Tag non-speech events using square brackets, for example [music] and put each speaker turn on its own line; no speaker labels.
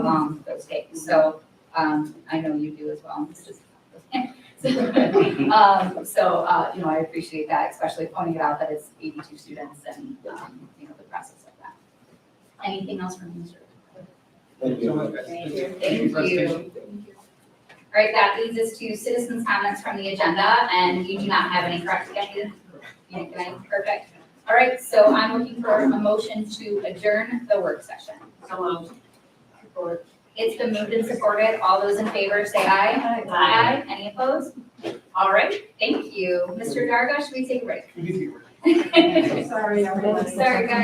along those days, so, um, I know you do as well, Mrs. So, [laughs] um, So, uh, you know, I appreciate that, especially pointing it out that it's eighty-two students and, um, you know, the process of that. Anything else from Mr. Cook?
Thank
So much.
you.
Thank you.
Thank
for your presentation.
you. All right, that leads us to citizens' comments from the agenda, and you do not have any, correct, Becky? Yeah, okay, perfect. All right, so I'm looking for a motion to adjourn the work session. It's been moved and supported. All those in favor say aye.
Aye.
Any opposed? All right, thank you. Mr. Darga, should we take a break?
Easy work.
[laughs]
Sorry,
Sorry, guys.